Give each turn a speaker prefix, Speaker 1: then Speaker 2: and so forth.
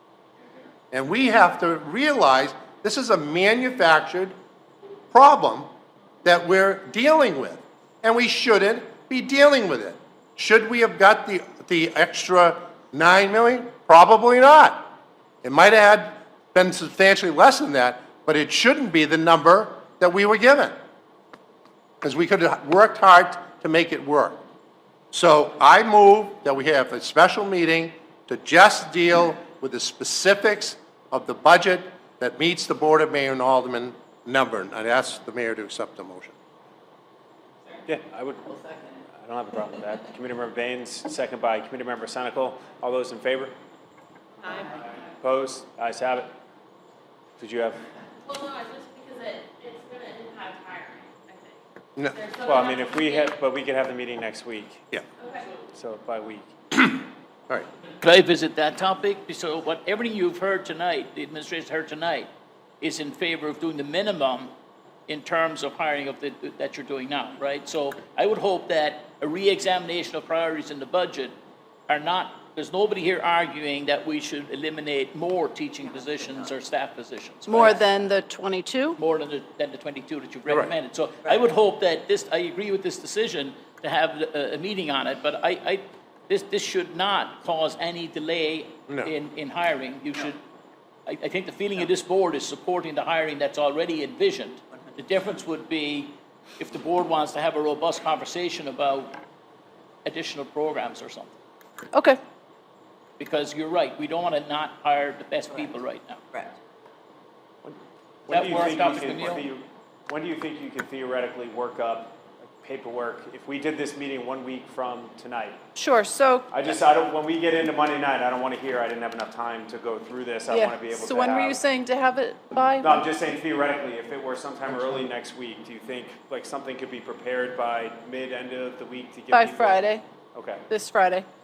Speaker 1: And we have to realize this is a manufactured problem that we're dealing with, and we shouldn't be dealing with it. Should we have got the, the extra nine million? Probably not. It might have had been substantially less than that, but it shouldn't be the number that we were given. Because we could have worked hard to make it work. So I move that we have a special meeting to just deal with the specifics of the budget that meets the Board of Mayor and Alderman number. And I'd ask the mayor to accept the motion.
Speaker 2: Yeah, I would, I don't have a problem with that. Committee Member Baines, second by Committee Member Senical. All those in favor? Aye. Opposed? Ayes have it. Did you have,
Speaker 3: Well, no, it's just because it, it's gonna impact hiring, I think.
Speaker 1: No,
Speaker 3: There's
Speaker 2: well, I
Speaker 3: something
Speaker 2: mean,
Speaker 3: else
Speaker 2: if
Speaker 3: we
Speaker 2: we
Speaker 3: did.
Speaker 2: had, but we could have the meeting next week,
Speaker 1: yeah,
Speaker 3: Okay.
Speaker 2: so by week.
Speaker 1: all right.
Speaker 4: Could I visit that topic? So what, everything you've heard tonight, the administration's heard tonight, is in favor of doing the minimum in terms of hiring of the, that you're doing now, right? So I would hope that a reexamination of priorities in the budget are not, there's nobody here arguing that we should eliminate more teaching positions or staff positions.
Speaker 5: More
Speaker 4: right?
Speaker 5: than the 22?
Speaker 4: more than the, than the 22 that you've recommended. So I would hope that this, I agree with this decision to have uh, a, a meeting on it, but I, I, this, this should not cause any delay
Speaker 1: No.
Speaker 4: in, in hiring. You should, I, I think the feeling of this board is supporting the hiring that's already envisioned. The difference would be if the board wants to have a robust conversation about additional programs or something.
Speaker 5: Okay.
Speaker 4: Because you're right, we don't want to not hire the best people right now.
Speaker 6: Correct.
Speaker 2: When
Speaker 4: That
Speaker 2: do you
Speaker 4: work
Speaker 2: think
Speaker 4: up
Speaker 2: you
Speaker 4: with
Speaker 2: could
Speaker 4: Camille?
Speaker 2: theo- When do you think you could theoretically work up paperwork if we did this meeting one week from tonight?
Speaker 5: Sure, so,
Speaker 2: I just, I don't, when we get into Monday night, I don't want to hear, I didn't have enough time to go through this. I want
Speaker 5: yeah,
Speaker 2: to be able to have.
Speaker 5: so when were you saying to have it by?
Speaker 2: No, I'm just saying theoretically, if it were sometime early next week, do you think, like, something could be prepared by mid, end of the week to give
Speaker 5: By
Speaker 2: people-
Speaker 5: Friday,
Speaker 2: Okay.
Speaker 5: this Friday?